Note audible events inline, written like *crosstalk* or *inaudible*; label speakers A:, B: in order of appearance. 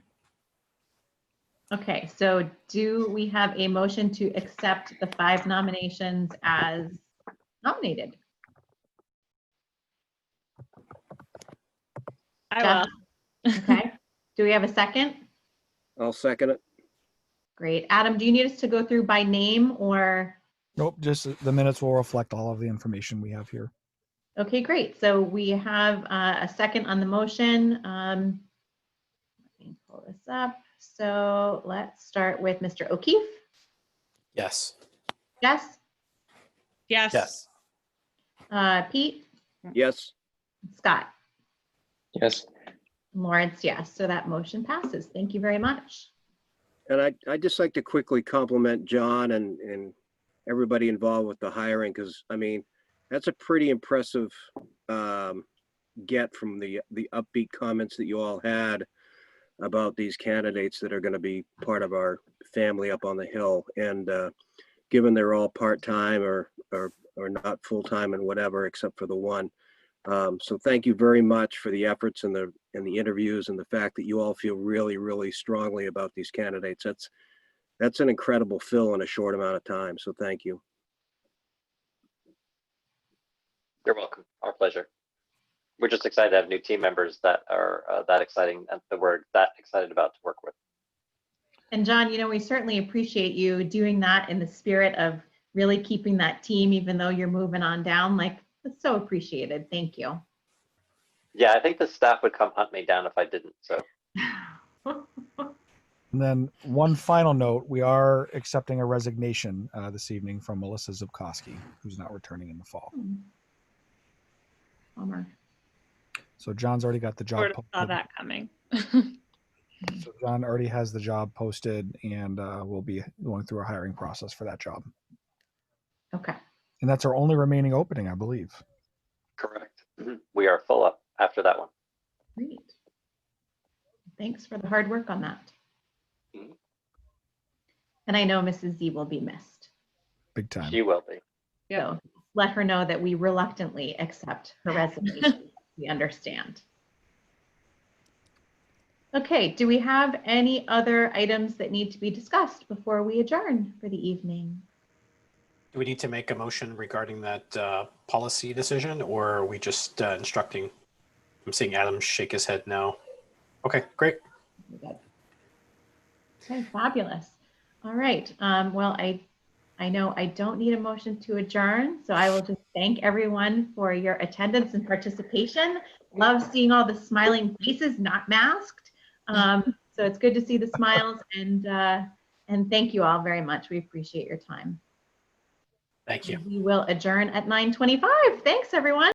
A: Okay, so do we have a motion to accept the five nominations as nominated?
B: I will.
A: Okay, do we have a second?
C: I'll second it.
A: Great. Adam, do you need us to go through by name or?
D: Nope, just the minutes will reflect all of the information we have here.
A: Okay, great. So we have uh, a second on the motion. Um, Let me pull this up. So let's start with Mr. O'Keefe.
E: Yes.
A: Yes,
B: Yes.
A: Uh, Pete,
C: Yes,
A: Scott,
F: yes,
A: Lawrence, yes. So that motion passes. Thank you very much.
C: and I, I'd just like to quickly compliment John and, and everybody involved with the hiring, because, I mean, that's a pretty impressive um, get from the, the upbeat comments that you all had about these candidates that are going to be part of our family up on the hill. And uh, given they're all part-time or, or, or not full-time and whatever, except for the one. Um, So thank you very much for the efforts and the, and the interviews and the fact that you all feel really, really strongly about these candidates. That's, that's an incredible fill in a short amount of time. So thank you.
F: you're welcome. Our pleasure. We're just excited to have new team members that are uh, that exciting, and the word that excited about to work with.
A: And John, you know, we certainly appreciate you doing that in the spirit of really keeping that team, even though you're moving on down. Like, it's so appreciated. Thank you. *sighs*
F: Yeah, I think the staff would come hunt me down if I didn't. So
D: And then one final note, we are accepting a resignation uh, this evening from Melissa Zubkowski, who's not returning in the fall.
A: Bummer.
D: So John's already got the job.
B: Sort of saw
D: posted.
B: that coming.
D: So John already has the job posted and uh, will be going through a hiring process for that job.
A: Okay.
D: And that's our only remaining opening, I believe.
F: correct. Mhm. We are full up after that one.
A: Great. Thanks for the hard work on that.
F: Mhm.
A: And I know Mrs. Z will be missed.
D: Big time.
F: She will be.
B: Yeah.
A: So let her know that we reluctantly accept her resignation. We understand. Okay, do we have any other items that need to be discussed before we adjourn for the evening?
E: Do we need to make a motion regarding that uh, policy decision, or are we just uh, instructing? I'm seeing Adam shake his head no. Okay, great.
A: Okay, fabulous. All right, um, well, I, I know I don't need a motion to adjourn, so I will just thank everyone for your attendance and participation. Love seeing all the smiling faces, not masked. Um, so it's good to see the smiles and, uh, and thank you all very much. We appreciate your time.
E: Thank you.
A: We will adjourn at 9:25. Thanks, everyone.